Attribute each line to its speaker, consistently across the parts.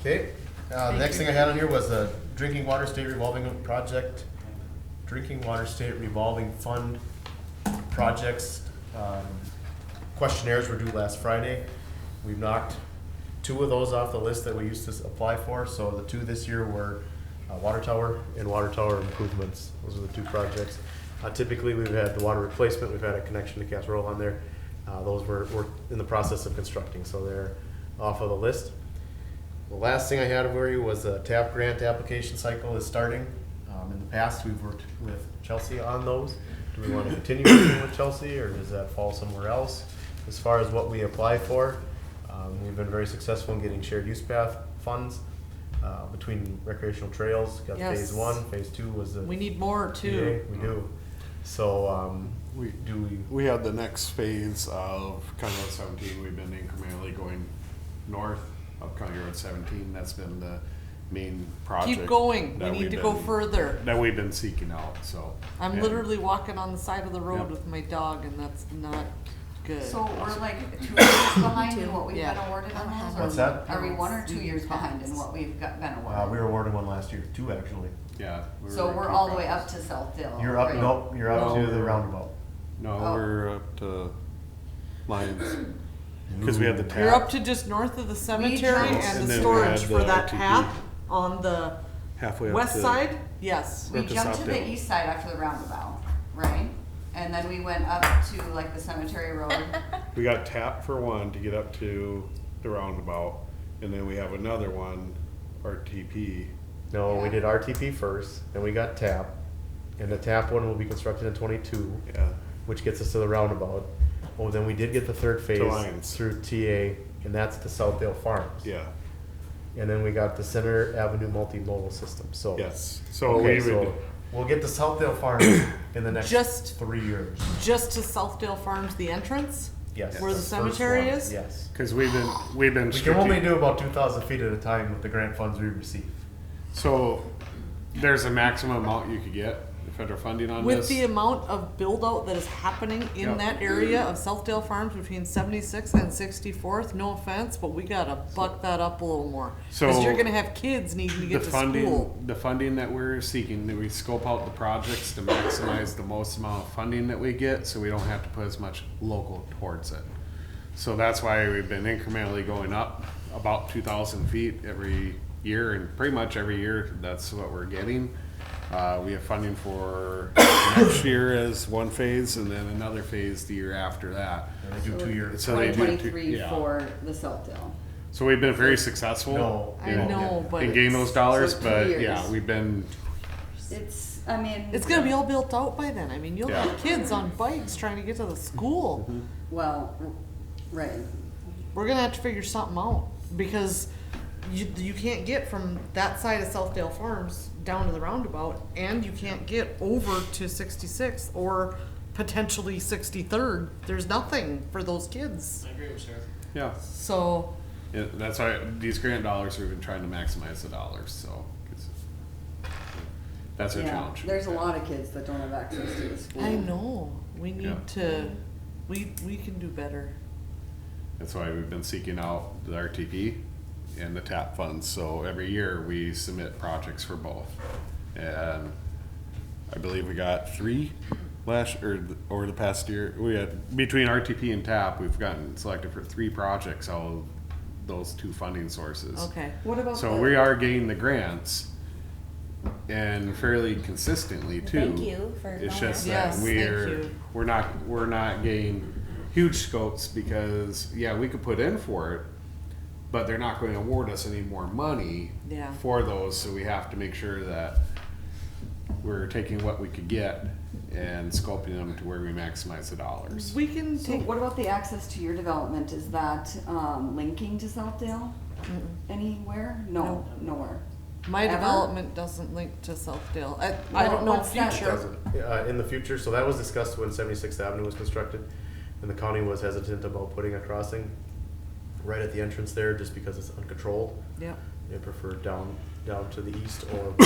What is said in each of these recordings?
Speaker 1: Okay, uh, the next thing I had on here was the drinking water state revolving project, drinking water state revolving fund projects. um, Questionnaires were due last Friday. We've knocked two of those off the list that we used to s- apply for, so the two this year were uh, water tower and water tower improvements. Those are the two projects. Uh, Typically, we've had the water replacement, we've had a connection to Casserole on there. Uh, Those were, were in the process of constructing, so they're off of the list. The last thing I had for you was the TAP grant application cycle is starting. Um, in the past, we've worked with Chelsea on those. Do we want to continue working with Chelsea or does that fall somewhere else? As far as what we apply for, um, we've been very successful in getting shared use path funds uh, between recreational trails. Got phase
Speaker 2: Yes.
Speaker 1: one, phase two was the.
Speaker 2: We need more too.
Speaker 1: We do. So, um,
Speaker 3: We-
Speaker 1: do we,
Speaker 3: We had the next phase of County Road seventeen, we've been incrementally going north of County Road seventeen, that's been the main project.
Speaker 2: Keep going, we
Speaker 3: that
Speaker 2: need
Speaker 3: we've
Speaker 2: to go
Speaker 3: been-
Speaker 2: further.
Speaker 3: That we've been seeking out, so.
Speaker 2: I'm
Speaker 3: and-
Speaker 2: literally walking on the side of the road
Speaker 3: Yep.
Speaker 2: with my dog and that's not good.
Speaker 4: So we're like two years behind in what we've been
Speaker 2: Yeah. Uh-huh.
Speaker 4: awarded on those? or
Speaker 1: What's that?
Speaker 4: Are we one or two
Speaker 2: Medium
Speaker 4: years behind in
Speaker 2: pass.
Speaker 4: what we've got, been
Speaker 1: uh, we
Speaker 4: awarded?
Speaker 1: were awarded one last year, two actually.
Speaker 3: Yeah. we
Speaker 4: So we're
Speaker 3: making
Speaker 4: all the way up
Speaker 3: progress.
Speaker 4: to Southdale.
Speaker 1: You're up,
Speaker 4: right?
Speaker 1: nope, you're up to
Speaker 3: No.
Speaker 1: the roundabout.
Speaker 3: No,
Speaker 4: Oh.
Speaker 3: we're up to Lions, cause we had the tap.
Speaker 2: You're up to just north of the cemetery
Speaker 4: jumped-
Speaker 2: and
Speaker 3: And
Speaker 2: the
Speaker 3: then we
Speaker 2: storage
Speaker 3: had
Speaker 2: for
Speaker 3: the
Speaker 2: that
Speaker 3: LTP.
Speaker 2: half on the
Speaker 3: Halfway up
Speaker 2: west
Speaker 3: to-
Speaker 2: side, yes.
Speaker 4: We
Speaker 3: up to
Speaker 4: jumped to the
Speaker 3: Southdale.
Speaker 4: east side after the roundabout, right? And then we went up to like the cemetery road.
Speaker 3: We got tap for one to get up to the roundabout, and then we have another one, RTP.
Speaker 1: No, we
Speaker 4: Yeah.
Speaker 1: did RTP first, then we got TAP, and the TAP one will be constructed in twenty-two,
Speaker 3: Yeah,
Speaker 1: which gets us to the roundabout. Oh, then we did get the third phase
Speaker 3: Lions.
Speaker 1: through TA, and that's to Southdale Farms.
Speaker 3: yeah,
Speaker 1: And then we got the Center Avenue multimodal system, so.
Speaker 3: yes, so
Speaker 1: Okay,
Speaker 3: we would,
Speaker 1: so we'll get to Southdale Farms in the next
Speaker 2: Just-
Speaker 1: three years,
Speaker 2: Just to Southdale Farms, the entrance,
Speaker 1: yes.
Speaker 2: Where the
Speaker 1: first
Speaker 2: cemetery
Speaker 1: one,
Speaker 2: is?
Speaker 1: Yes.
Speaker 3: cause we've been, we've been.
Speaker 1: We can only
Speaker 3: strate-
Speaker 1: do about two thousand feet at a time with the grant funds we receive.
Speaker 3: So, there's a maximum amount you could get, the federal funding on
Speaker 2: with
Speaker 3: this.
Speaker 2: the amount of build out that is happening in
Speaker 3: Yep.
Speaker 2: that area of Southdale Farms between seventy-six and sixty-fourth, no offense, but we gotta buck that up a little more. Cause
Speaker 3: So-
Speaker 2: you're gonna have kids needing to
Speaker 3: The
Speaker 2: get to school.
Speaker 3: funding, the funding that we're seeking, that we scope out the projects to maximize the most amount of funding that we get, so we don't have to put as much local towards it. So that's why we've been incrementally going up about two thousand feet every year, and pretty much every year, that's what we're getting. Uh, we have funding for next year as one phase, and then another phase the year after that.
Speaker 1: And they do two years.
Speaker 3: So they
Speaker 4: Twenty
Speaker 3: do two-
Speaker 4: twenty-three
Speaker 3: yeah.
Speaker 4: for the Southdale.
Speaker 3: So we've been very successful.
Speaker 1: No.
Speaker 2: I know, but
Speaker 3: And gain those dollars,
Speaker 4: So two
Speaker 3: but
Speaker 4: years.
Speaker 3: yeah, we've been,
Speaker 4: It's, I mean.
Speaker 2: It's gonna be all built out by then. I mean, you'll
Speaker 3: Yeah. Mm-hmm.
Speaker 2: have kids on bikes trying to get to the school.
Speaker 4: Well, right.
Speaker 2: We're gonna have to figure something out because you, you can't get from that side of Southdale Farms down to the roundabout and you can't get over to 66th or potentially 63rd. There's nothing for those kids.
Speaker 3: yeah.
Speaker 2: So
Speaker 3: Yeah, that's why these grant dollars we've been trying to maximize the dollars. So 'cause that's our
Speaker 4: Yeah,
Speaker 3: challenge.
Speaker 4: there's a lot of kids that don't have access to the school.
Speaker 2: I know we need
Speaker 3: Mm. Yeah.
Speaker 2: to, we, we can do better.
Speaker 3: That's why we've been seeking out the RTP and the TAP funds. So every year we submit projects for both, and I believe we got three last or th- over the past year. We had between RTP and TAP, we've gotten selected for three projects out of those two funding sources.
Speaker 2: Okay.
Speaker 4: What about
Speaker 3: So
Speaker 4: the-
Speaker 3: we are getting the grants and fairly consistently too.
Speaker 5: Thank you for
Speaker 3: It's
Speaker 5: calling
Speaker 3: just
Speaker 5: us.
Speaker 3: that
Speaker 2: Yes, thank
Speaker 3: we're,
Speaker 2: you.
Speaker 3: we're not, we're not getting huge scopes because, yeah, we could put in for it, but they're not gonna award us any more money
Speaker 2: Yeah.
Speaker 3: for those, so we have to make sure that we're taking what we could get and scoping them to where we maximize the dollars.
Speaker 2: We can
Speaker 4: So
Speaker 2: take,
Speaker 4: what about the access to your development? Is that um, linking to Southdale anywhere? No, nowhere.
Speaker 2: my
Speaker 4: Ever?
Speaker 2: development doesn't link to Southdale. I, I don't know
Speaker 4: What's that?
Speaker 2: future.
Speaker 1: doesn't, uh, in the future, so that was discussed when Seventy-Sixth Avenue was constructed, and the county was hesitant about putting a crossing right at the entrance there, just because it's uncontrolled.
Speaker 2: Yep.
Speaker 1: They prefer down, down to the east or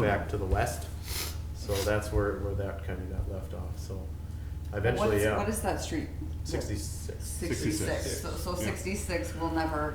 Speaker 1: back to the west, so that's where, where that kind of got left off, so eventually,
Speaker 4: What's-
Speaker 1: yeah.
Speaker 4: What is that street?
Speaker 1: Sixty-six.
Speaker 4: Sixty-six. So, so
Speaker 3: Yeah.
Speaker 4: sixty-six will never